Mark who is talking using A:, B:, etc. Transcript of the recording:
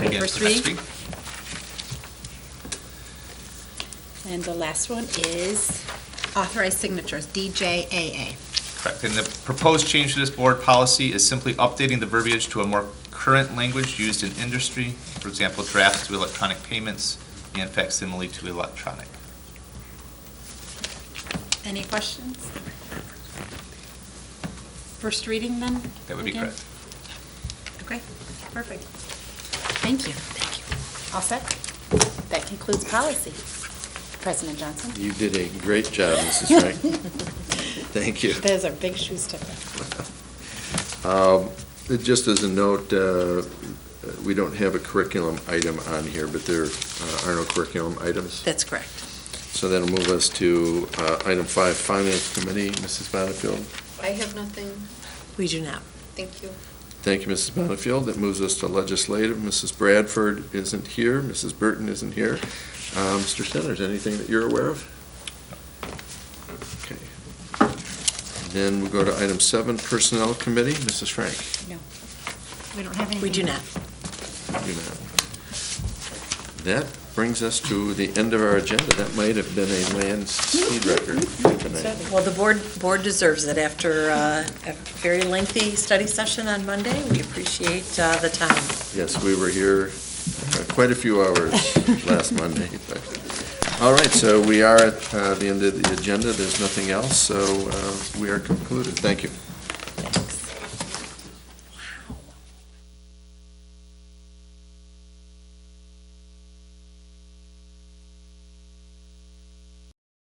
A: Against
B: First
A: the first
B: read.
A: read.
B: And the last one is authorized signatures, DJAA.
A: Correct. And the proposed change to this board policy is simply updating the verbiage to a more current language used in industry, for example, drafts to electronic payments and facsimile to electronic.
B: Any questions? First reading then?
A: That would be
B: again?
A: correct.
B: Okay, perfect. Thank you. Thank you. All set? That concludes policy. President Johnson?
C: You did a great job, Mrs. Frank. Thank you.
B: Those are big shoes to fill.
C: Um, Just as a note, uh, we don't have a curriculum item on here, but there uh, are no curriculum items.
B: That's correct.
C: So that'll move us to uh, item five, Finance Committee, Mrs. Bonnefield.
D: I have nothing.
E: We do not.
D: Thank you.
C: Thank you, Mrs. Bonnefield. That moves us to Legislative. Mrs. Bradford isn't here, Mrs. Burton isn't here. Uh, Mr. Centers, anything that you're aware of? Okay. Then we go to item seven, Personnel Committee, Mrs. Frank.
B: We don't have anything.
E: We do not.
C: do not. That brings us to the end of our agenda. That might have been a land speed record tonight.
E: Well, the board, board deserves it after uh, a very lengthy study session on Monday. We appreciate uh, the time.
C: Yes, we were here uh, quite a few hours last Monday. but- All right, so we are at uh, the end of the agenda. There's nothing else, so uh, we are concluded. Thank you.